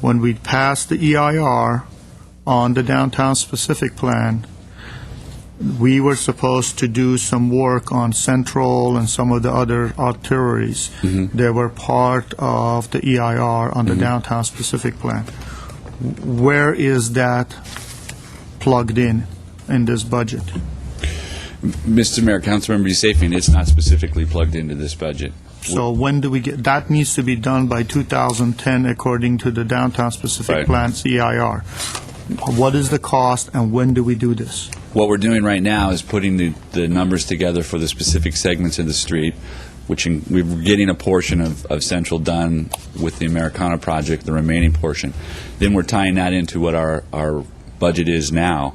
when we passed the EIR on the downtown specific plan, we were supposed to do some work on Central and some of the other arteries. They were part of the EIR on the downtown specific plan. Where is that plugged in, in this budget? Mr. Mayor, Councilmember Yusefian, it's not specifically plugged into this budget. So when do we get, that needs to be done by 2010 according to the downtown specific Right. plan, CIR. What is the cost and when do we do this? What we're doing right now is putting the, the numbers together for the specific segments of the street, which in- we're getting a portion of, of Central done with the Americana project, the remaining portion. Then we're tying that into what our, our budget is now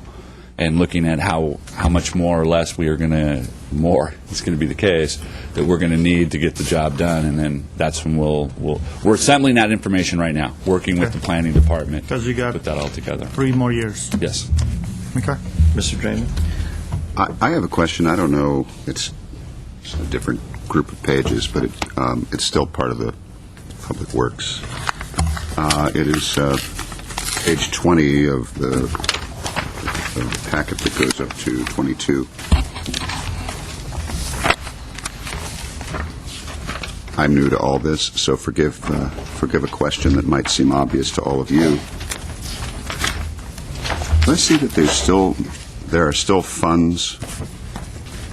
and looking at how, how much more or less we are going to, more, it's going to be the case, that we're going to need to get the job done. And then that's when we'll, we'll, we're assembling that information right now, working with the planning department. 'Cause you got- Put that all together. Three more years, Yes. okay? Mr. Draymond? I I have a question. I don't know, it's it's a different group of pages, but it, um, it's still part of the Public Works. Uh, It is uh, page 20 of the of the packet that goes up to 22. I'm new to all this, so forgive, uh, forgive a question that might seem obvious to all of you. Let's see that there's still, there are still funds,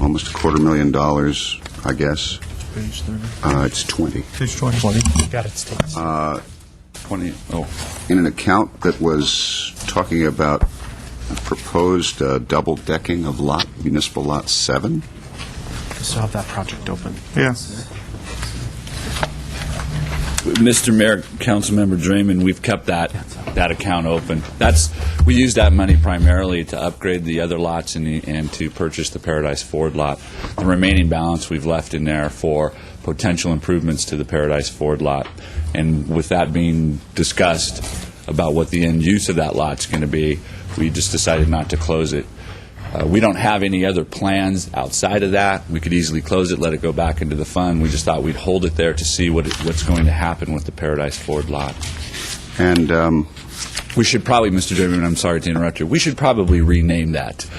almost a quarter million dollars, I guess. Page 30. Uh, It's 20. Page 20. Got it, Steve. 20, oh. In an account that was talking about a proposed uh, double decking of lot, municipal lot seven? Still have that project open. Yeah. Mr. Mayor, Councilmember Draymond, we've kept that, that account open. That's, we use that money primarily to upgrade the other lots and, the- and to purchase the Paradise Ford lot. The remaining balance we've left in there for potential improvements to the Paradise Ford lot. And with that being discussed about what the end use of that lot's going to be, we just decided not to close it. Uh, We don't have any other plans outside of that. We could easily close it, let it go back into the fund. We just thought we'd hold it there to see what, it- what's going to happen with the Paradise Ford lot. And um, We should probably, Mr. Chairman, I'm sorry to interrupt you, we should probably rename that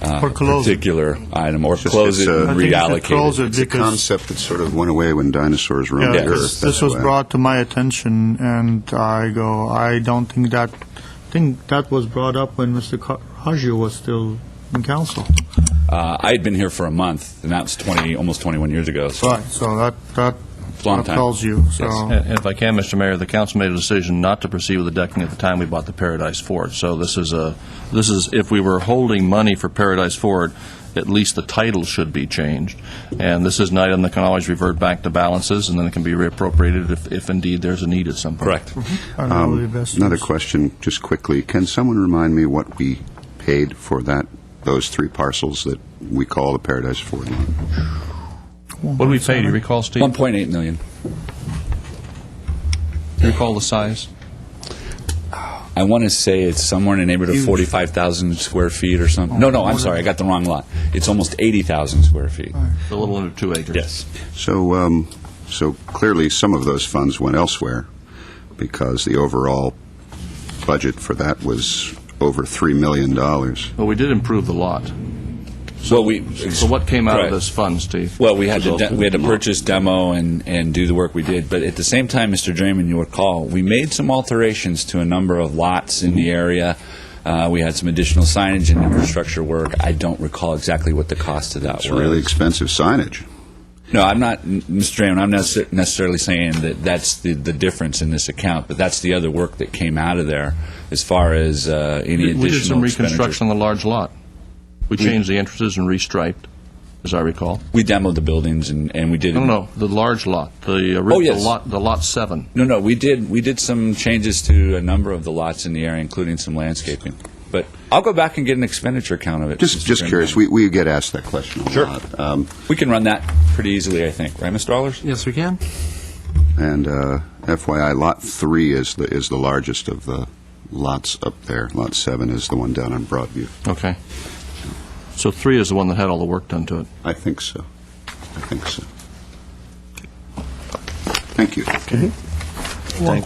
uh, Or close it. particular item, or close it it's, uh, and I think it's a close reallocate it. it. it's a Because- concept that sort of went away when dinosaurs roamed Yeah, this the earth. this That's was why. brought to my attention, and I go, I don't think that, I think that was brought up when Mr. Ca- Haggio was still in council. Uh, I had been here for a month, and that was 20, almost 21 years ago, so Right, so that, that Long that time. tells you, so. Yes. And- and If I can, Mr. Mayor, the council made a decision not to proceed with the decking at the time we bought the Paradise Ford. So this is a, this is, if we were holding money for Paradise Ford, at least the title should be changed. And this is an item that can always revert back to balances, and then it can be reappropriated if, if indeed there's a need at some point. correct. I don't know the best Um, Another use. question, just quickly. Can someone remind me what we paid for that, those three parcels that we call the Paradise Ford lot? What did we pay? Do you recall, Steve? 1.8 million. Do you recall the size? I want to say it's somewhere in the neighborhood of 45,000 square feet or something. No, no, I'm sorry, I got the wrong lot. It's almost 80,000 square feet. A little under two acres. Yes. So, um, so clearly, some of those funds went elsewhere because the overall budget for that was over $3 million. But we did improve the lot. So we. So what came out of Right. this fund, Steve? Well, we had to, Resulted de- we had to in the lot. purchase demo and, and do the work we did, but at the same time, Mr. Draymond, you recall, we made some alterations to a number of lots in the area. Uh, we had some additional signage and infrastructure work. I don't recall exactly what the cost of that It's was. really expensive signage. No, I'm not, n- Mr. Draymond, I'm not se- necessarily saying that that's the, the difference in this account, but that's the other work that came out of there as far as uh, any We did some additional expenditure. reconstruction on the large lot. We changed the entrances and restriped, as I recall. We demoed the buildings and, and we did. No, no, the large lot, the Oh, original yes. lot, the lot seven. No, no, we did, we did some changes to a number of the lots in the area, including some landscaping. But I'll go back and get an expenditure count of it. Just, Mr. just Chairman. curious, we, we get asked that question a Sure. lot. Um, We can run that pretty easily, I think, right, Mr. Allers? Yes, we can. And uh, FYI, Lot 3 is the, is the largest of the lots up there. Lot 7 is the one down on Broadview. Okay. So three is the one that had all the work done to it. I think so. I think so. Thank you. Thank